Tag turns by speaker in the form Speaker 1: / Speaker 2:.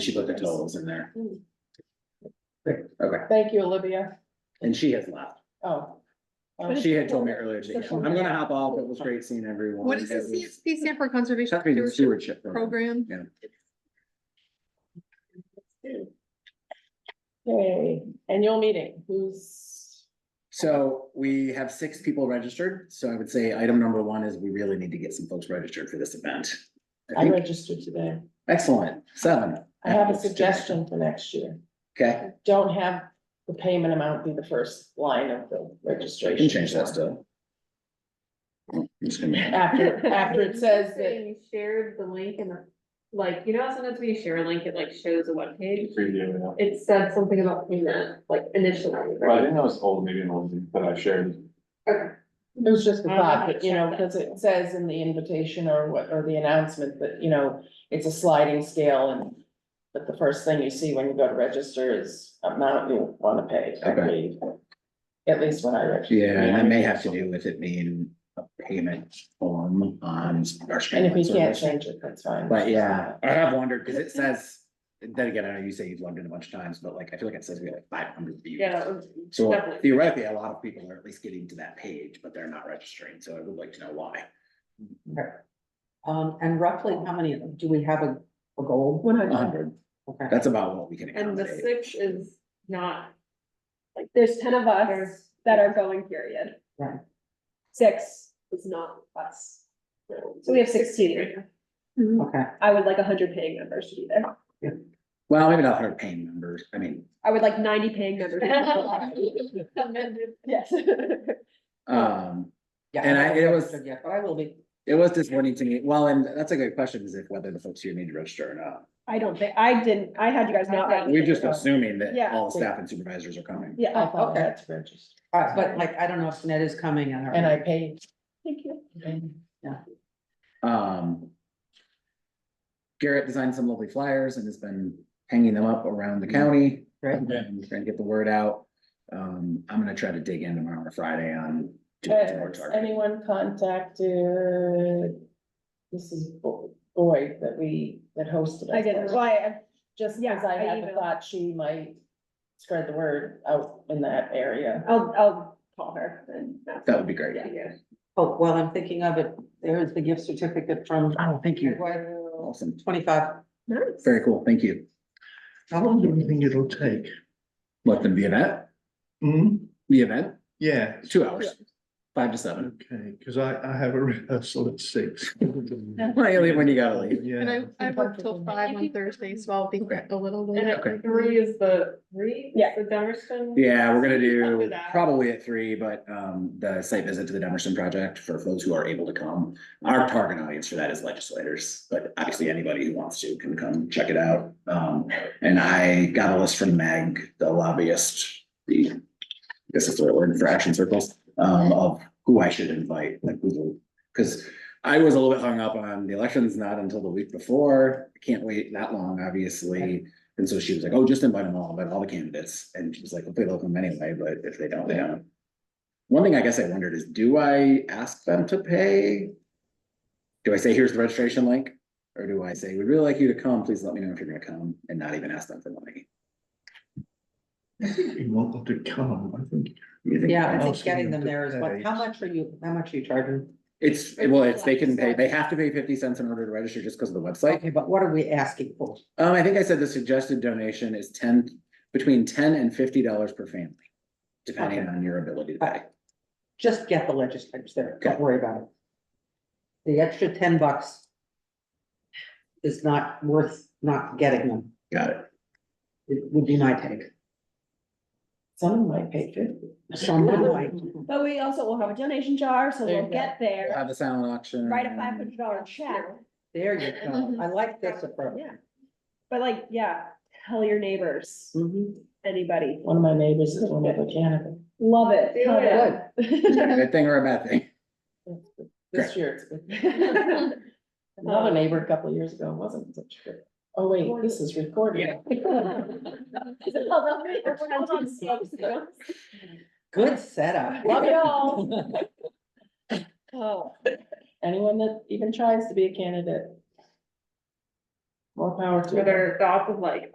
Speaker 1: She put the totals in there.
Speaker 2: Hmm.
Speaker 1: Okay,
Speaker 2: Thank you, Olivia.
Speaker 1: and she has left.
Speaker 2: Oh.
Speaker 1: She had told me earlier today, I'm gonna hop off. It was great seeing everyone.
Speaker 3: What is the
Speaker 1: It was-
Speaker 3: CSP stand for Conservation
Speaker 1: Something in
Speaker 3: Stewardship
Speaker 1: stewardship. program.
Speaker 3: Program?
Speaker 2: Okay, annual meeting, who's?
Speaker 1: So we have six people registered, so I would say item number one is we really need to get some folks registered for this event. I
Speaker 2: I
Speaker 1: think-
Speaker 2: registered today.
Speaker 1: Excellent, seven.
Speaker 2: I have a suggestion for next year.
Speaker 1: Okay,
Speaker 2: Don't have the payment amount be the first line of the
Speaker 1: I
Speaker 2: registration.
Speaker 1: can change that still. I'm just gonna-
Speaker 2: After, after it says that,
Speaker 4: You shared the link and the, like, you know, how sometimes when you share a link, it like shows a webpage.
Speaker 5: Preview, yeah.
Speaker 4: It said something about payment, like initially. right?
Speaker 5: Well, I didn't know it was old, maybe an old, but I shared.
Speaker 4: Okay.
Speaker 2: it was just a thought, but you know, because it says in the invitation or what, or the announcement that, you know, it's a sliding scale and. But the first thing you see when you go to register is amount you wanna pay, I
Speaker 1: Okay.
Speaker 2: believe. At least when I register.
Speaker 1: Yeah, and that may have to do with it being a payment form on our.
Speaker 2: And if
Speaker 1: streaming
Speaker 2: we can't
Speaker 1: service.
Speaker 2: change it, that's fine.
Speaker 1: But yeah, I have wondered, cause it says, then again, I know you say you've loved it a bunch of times, but like, I feel like it says we have like five hundred views.
Speaker 4: Yeah. it was
Speaker 1: So
Speaker 4: definitely-
Speaker 1: theoretically, a lot of people are at least getting to that page, but they're not registering, so I would like to know why.
Speaker 6: Um, and roughly how many, do we have a, a goal?
Speaker 2: One
Speaker 1: A hundred,
Speaker 6: Okay.
Speaker 1: that's about what we can
Speaker 4: And the
Speaker 1: accommodate.
Speaker 4: six is not,
Speaker 7: Like, there's ten of us
Speaker 4: There's-
Speaker 7: that are going, period.
Speaker 6: Right.
Speaker 7: Six,
Speaker 4: is not us.
Speaker 7: so we have sixteen.
Speaker 6: Okay,
Speaker 7: I would like hundred paying members to be there.
Speaker 1: Well, maybe not hundred paying members, I mean,
Speaker 7: I would like ninety paying members.
Speaker 4: Amended.
Speaker 7: Yes.
Speaker 1: um,
Speaker 6: yeah.
Speaker 1: And I-
Speaker 6: haven't
Speaker 1: it was-
Speaker 6: registered yet, But I will be.
Speaker 1: it was disappointing to me, well, and that's a good question, is if whether the folks here need to register or not.
Speaker 7: I don't think, I didn't, I had you guys not. register.
Speaker 1: We're just assuming that
Speaker 7: Yeah.
Speaker 1: all staff and supervisors are coming.
Speaker 2: I
Speaker 7: Yeah,
Speaker 2: thought
Speaker 6: Okay.
Speaker 2: that's registered.
Speaker 6: Uh, but like, I don't know if Ned is coming and.
Speaker 2: And I paid.
Speaker 7: thank you.
Speaker 1: Um. Garrett designed some lovely flyers and has been hanging them up around the county.
Speaker 6: Right.
Speaker 1: And Trying to get the word out. Um, I'm gonna try to dig in tomorrow or Friday on. doing some more
Speaker 2: Has
Speaker 1: targeting.
Speaker 2: anyone contacted Mrs. Bo- Boyd that we, that hosted? us?
Speaker 7: I didn't, well, I,
Speaker 2: Just
Speaker 7: yeah,
Speaker 2: because I
Speaker 7: I
Speaker 2: had the
Speaker 7: emailed.
Speaker 2: thought she might spread the word out in that area.
Speaker 7: I'll, I'll call her and. ask.
Speaker 1: That would be great.
Speaker 7: Yeah.
Speaker 6: Oh, well, I'm thinking of it. There is the gift certificate from
Speaker 1: Oh, thank you.
Speaker 6: Twenty-five.
Speaker 1: Awesome. Very cool. Thank you.
Speaker 8: How long do you think it'll take?
Speaker 1: Let them be event,
Speaker 8: Hmm,
Speaker 1: the event,
Speaker 8: yeah,
Speaker 1: two hours, five to seven.
Speaker 8: okay, because I, I have a rehearsal at six.
Speaker 1: Why you leave when you gotta leave?
Speaker 8: Yeah.
Speaker 3: And I, I work till five on Thursday, so I'll be
Speaker 1: Okay.
Speaker 3: a little
Speaker 4: And
Speaker 3: late.
Speaker 1: Okay.
Speaker 4: it- three is the, three? is
Speaker 7: Yeah.
Speaker 4: The Dummerston?
Speaker 1: Yeah, we're gonna
Speaker 4: After
Speaker 1: do
Speaker 4: that.
Speaker 1: probably at three, but um the site visit to the Demerson project for folks who are able to come. Our target audience for that is legislators, but obviously anybody who wants to can come check it out. Um, and I got a list from Mag, the lobbyist, the, I guess that's the right word for action circles, um, of who I should invite, like who, because I was a little bit hung up on the elections, not until the week before. Can't wait that long, obviously. And so she was like, oh, just invite them all, invite all the candidates. And she was like, hopefully they'll come anyway, but if they don't, they don't. One thing I guess I wondered is, do I ask them to pay? Do I say, here's the registration link? Or do I say, we'd really like you to come, please let me know if you're gonna come and not even ask them for money?
Speaker 8: You want them to come, I think.
Speaker 1: You think-
Speaker 6: Yeah, I
Speaker 8: I'll
Speaker 6: think
Speaker 8: see
Speaker 6: getting
Speaker 8: you
Speaker 6: them there is what,
Speaker 8: today.
Speaker 6: how much are you, how much are you charging?
Speaker 1: It's, well, it's, they can pay, they have to pay fifty cents in order to register just because of the website.
Speaker 6: Okay, but what are we asking for?
Speaker 1: Um, I think I said the suggested donation is ten, between ten and fifty dollars per family, depending
Speaker 6: Okay. Uh,
Speaker 1: on your ability to
Speaker 6: But
Speaker 1: pay.
Speaker 6: just get the legislators there, don't
Speaker 1: Okay.
Speaker 6: worry about it. The extra ten bucks is not worth not getting them,
Speaker 1: Got it.
Speaker 6: It would be my take.
Speaker 2: Someone might pay fifty.
Speaker 6: Someone might.
Speaker 7: But we also will have a donation jar, so
Speaker 2: There you
Speaker 7: we'll
Speaker 2: go.
Speaker 7: get there,
Speaker 1: Have a silent auction.
Speaker 7: write a five hundred dollar check.
Speaker 6: There you go. I like this approach.
Speaker 7: Yeah. But like, yeah, tell your neighbors,
Speaker 6: Mhm.
Speaker 7: anybody,
Speaker 2: One of my neighbors is one of the cannabis.
Speaker 7: love it.
Speaker 4: Do
Speaker 7: love
Speaker 4: it.
Speaker 1: Is
Speaker 7: it.
Speaker 1: that a Good thing or a bad thing?
Speaker 2: This year it's good. Another neighbor a couple of years ago wasn't such a good. Oh, wait, this is recorded.
Speaker 7: oh, Everyone's on Zoom, so.
Speaker 6: Good setup.
Speaker 2: Love it all.
Speaker 7: Oh,
Speaker 2: Anyone that even tries to be a candidate.
Speaker 9: more power to
Speaker 7: where
Speaker 9: them.
Speaker 7: they're, the op- like,